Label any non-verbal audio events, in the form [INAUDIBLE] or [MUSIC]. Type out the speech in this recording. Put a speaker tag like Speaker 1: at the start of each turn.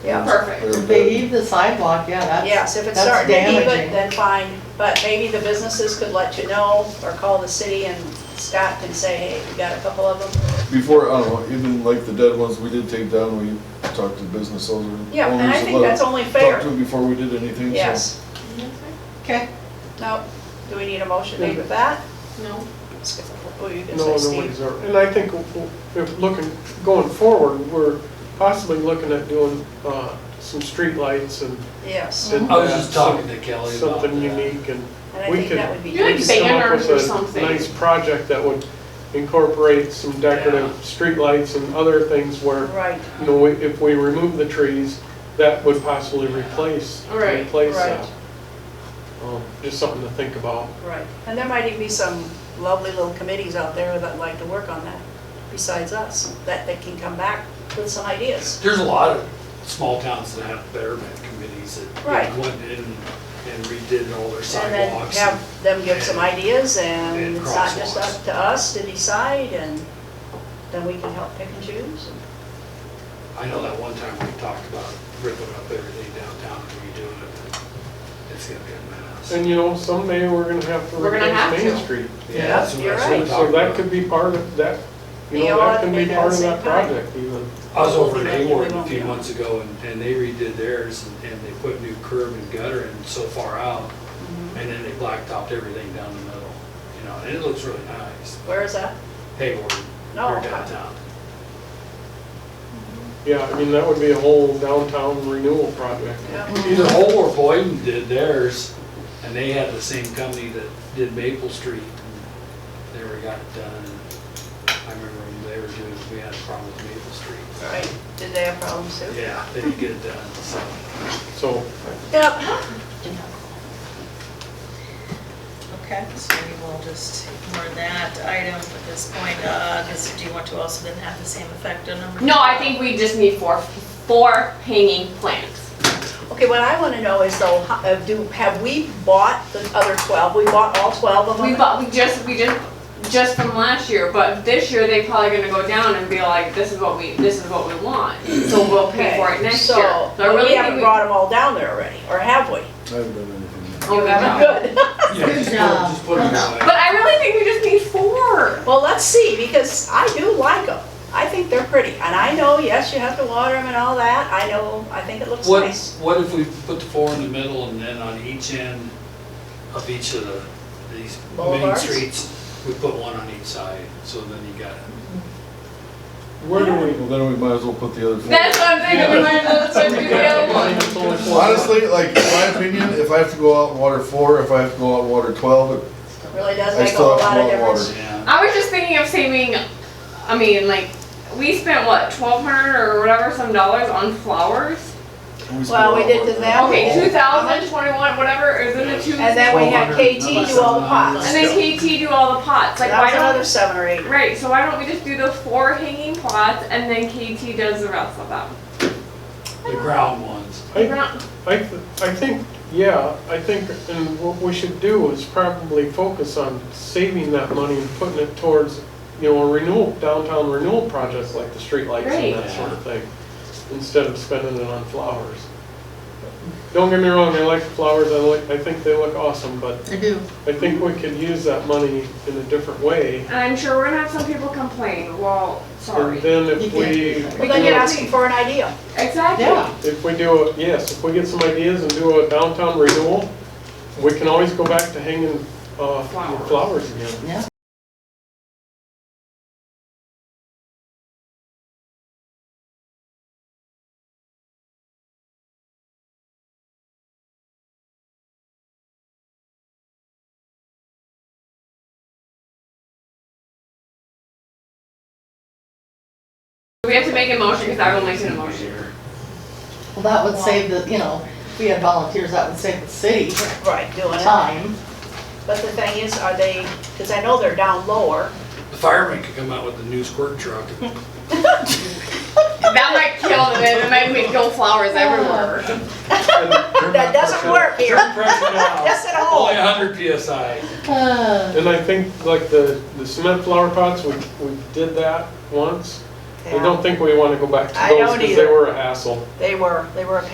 Speaker 1: Yeah.
Speaker 2: Perfect.
Speaker 1: If They leave the sidewalk, yeah, that's.
Speaker 2: Yes, if it's
Speaker 1: that's
Speaker 2: starting to even,
Speaker 1: damaging.
Speaker 2: then fine, but maybe the businesses could let you know or call the city and Scott can say, hey, we got a couple of them.
Speaker 3: Before, I don't know, even like the dead ones we did take down, we talked to business owner- owners.
Speaker 2: Yeah, and I
Speaker 3: and
Speaker 2: think
Speaker 3: let
Speaker 2: that's
Speaker 3: them
Speaker 2: only fair.
Speaker 3: Talk to them before we did anything, so.
Speaker 2: Yes.
Speaker 1: Okay,
Speaker 2: No, do we need a motion made with that?
Speaker 4: No.
Speaker 2: Who are you gonna
Speaker 5: No,
Speaker 2: say,
Speaker 5: nobody's
Speaker 2: Steve?
Speaker 5: ever, and I think if looking, going forward, we're possibly looking at doing uh, some streetlights and.
Speaker 2: Yes,
Speaker 5: and
Speaker 6: I was just
Speaker 5: that,
Speaker 6: talking to Kelly about that.
Speaker 5: Something unique and.
Speaker 2: and I
Speaker 5: We
Speaker 2: think
Speaker 5: could-
Speaker 2: that would be
Speaker 4: You like
Speaker 5: we could come up
Speaker 4: banners
Speaker 5: with
Speaker 4: or
Speaker 5: a
Speaker 4: something.
Speaker 5: Nice project that would incorporate some decorative streetlights and other things where,
Speaker 2: Right,
Speaker 5: you know, we- if we remove the trees, that would possibly replace,
Speaker 4: Right,
Speaker 5: replace
Speaker 2: right.
Speaker 5: that. Um, Just something to think about.
Speaker 2: right. And there might even be some lovely little committees out there that like to work on that, besides us, that they can come back with some ideas.
Speaker 6: There's a lot of small towns that have betterment committees that
Speaker 2: Right.
Speaker 6: you know, went in and redid all their
Speaker 2: And then
Speaker 6: sidewalks. and-
Speaker 2: have them give some ideas and
Speaker 6: And
Speaker 2: it's not just
Speaker 6: crosswalks.
Speaker 2: up to us to decide and then we can help pick and choose.
Speaker 6: I know that one time we talked about ripping up everything downtown and redoing it. and It's gonna be a mess.
Speaker 5: And you know, someday we're gonna have to
Speaker 4: We're gonna have
Speaker 5: replace Main
Speaker 4: to.
Speaker 5: Street.
Speaker 6: Yeah, that's what
Speaker 2: you're
Speaker 6: I was
Speaker 2: right.
Speaker 5: So
Speaker 6: talking
Speaker 5: that
Speaker 6: about.
Speaker 5: could be part of that, you
Speaker 2: They
Speaker 5: know,
Speaker 2: all
Speaker 5: that can be
Speaker 2: have to
Speaker 5: part of
Speaker 2: do the
Speaker 5: that
Speaker 2: same time.
Speaker 5: project even.
Speaker 6: I was over
Speaker 2: Hopefully
Speaker 6: in
Speaker 2: they
Speaker 6: Hayward a
Speaker 2: won't
Speaker 6: few
Speaker 2: be.
Speaker 6: months ago and, and they redid theirs and- and they put new curb and gutter and so far out.
Speaker 2: Mm-hmm.
Speaker 6: And then they blacktopped everything down the middle, you know, and it looks really nice.
Speaker 2: Where is that?
Speaker 6: Hayward,
Speaker 2: No.
Speaker 6: or downtown.
Speaker 5: Yeah, I mean, that would be a whole downtown renewal project.
Speaker 4: Mm-hmm.
Speaker 2: Yeah.
Speaker 6: Either Hole or Boyden did theirs, and they had the same company that did Maple Street. and They were got it done. I remember when they were doing, we had a problem with Maple Street.
Speaker 2: Right, did they have problems too?
Speaker 6: Yeah, they did get it done, so.
Speaker 5: So
Speaker 2: Yep,
Speaker 7: Okay, so we will just ignore that item at this point, because do you want to also then have the same effect on number?
Speaker 4: No, I think we just need four, four hanging plants.
Speaker 2: okay, what I wanna know is though, ho- uh, do, have we bought the other twelve? We bought all twelve of them?
Speaker 4: We bought, we just, we just, just from last year, but this year they probably gonna go down and be like, this is what we, this is what we want. So we'll pay for it next
Speaker 2: So,
Speaker 4: year. So I
Speaker 2: but
Speaker 4: really
Speaker 2: we
Speaker 4: think
Speaker 2: haven't brought them all down there already, or have we?
Speaker 3: I haven't done anything yet.
Speaker 4: Oh, we haven't.
Speaker 2: Good.
Speaker 6: Yeah, just put-
Speaker 1: job.
Speaker 6: just put it away.
Speaker 4: But I really think we just need four.
Speaker 2: [LAUGHS] Well, let's see, because I do like them. I think they're pretty, and I know, yes, you have to water them and all that, I know, I think it looks
Speaker 6: What,
Speaker 2: nice.
Speaker 6: what if we put the four in the middle and then on each end of each of the, these main
Speaker 2: Boulevards?
Speaker 6: streets, we put one on each side, so then you got it.
Speaker 5: where do we?
Speaker 3: Well, then we might as well put the other four.
Speaker 4: That's what I'm thinking, we might as well start doing the other one.
Speaker 3: Well, Honestly, like, in my opinion, if I have to go out and water four, if I have to go out and water twelve,
Speaker 2: Really does
Speaker 3: I
Speaker 2: make a
Speaker 3: still
Speaker 2: whole
Speaker 3: have
Speaker 2: lot of
Speaker 3: more water.
Speaker 2: difference.
Speaker 6: Yeah,
Speaker 4: I was just thinking of saving, I mean, like, we spent what, twelve hundred or whatever some dollars on flowers?
Speaker 3: we still
Speaker 2: Well, we
Speaker 3: have
Speaker 2: did
Speaker 3: water.
Speaker 2: the mail.
Speaker 4: Okay, two thousand, twenty-one, whatever, is in the two.
Speaker 2: And then we had KT do all the
Speaker 4: And
Speaker 2: pots.
Speaker 4: then KT do all the pots, like,
Speaker 2: That
Speaker 4: why
Speaker 2: was another
Speaker 4: don't,
Speaker 2: seven or eight.
Speaker 4: right, so why don't we just do the four hanging pots and then KT does the rest of them?
Speaker 6: the ground ones.
Speaker 5: I-
Speaker 4: Around-
Speaker 5: I, th- I think, yeah, I think, and what we should do is probably focus on saving that money and putting it towards, you know, a renewal, downtown renewal projects like the streetlights
Speaker 4: Right.
Speaker 5: and that sort of thing, instead of spending it on flowers. Don't get me wrong, I like flowers, I like, I think they look awesome, but
Speaker 1: I do.
Speaker 5: I think we could use that money in a different way.
Speaker 4: And I'm sure we're gonna have some people complain, well, sorry.
Speaker 5: And then if
Speaker 1: You can't do
Speaker 5: we.
Speaker 1: that.
Speaker 2: But then you're asking for an idea.
Speaker 4: Exactly.
Speaker 1: Yeah.
Speaker 5: If we do, a yes, if we get some ideas and do a downtown renewal, we can always go back to hanging uh,
Speaker 4: Flowers.
Speaker 5: flowers again.
Speaker 1: Yeah.
Speaker 4: Do we have to make a motion, because I will make an emotion.
Speaker 1: Well, that would save the, you know, if we had volunteers, that would save the city
Speaker 2: Right, doing it.
Speaker 1: time.
Speaker 2: But the thing is, are they, because I know they're down lower.
Speaker 6: The fireman could come out with a new squirt truck
Speaker 2: [LAUGHS]
Speaker 6: and
Speaker 4: That might kill them, it might make go flowers everywhere.
Speaker 2: [LAUGHS] That doesn't work here.
Speaker 6: Turn pressure down.
Speaker 2: Yes, at
Speaker 6: Only
Speaker 2: home.
Speaker 6: 100 PSI.
Speaker 1: Uh,
Speaker 5: And I think like the, the cement flower pots, we, we did that once. I don't think we wanna go back to
Speaker 2: I
Speaker 5: those,
Speaker 2: don't
Speaker 5: cause they
Speaker 2: either.
Speaker 5: were a hassle.
Speaker 2: They were, they were a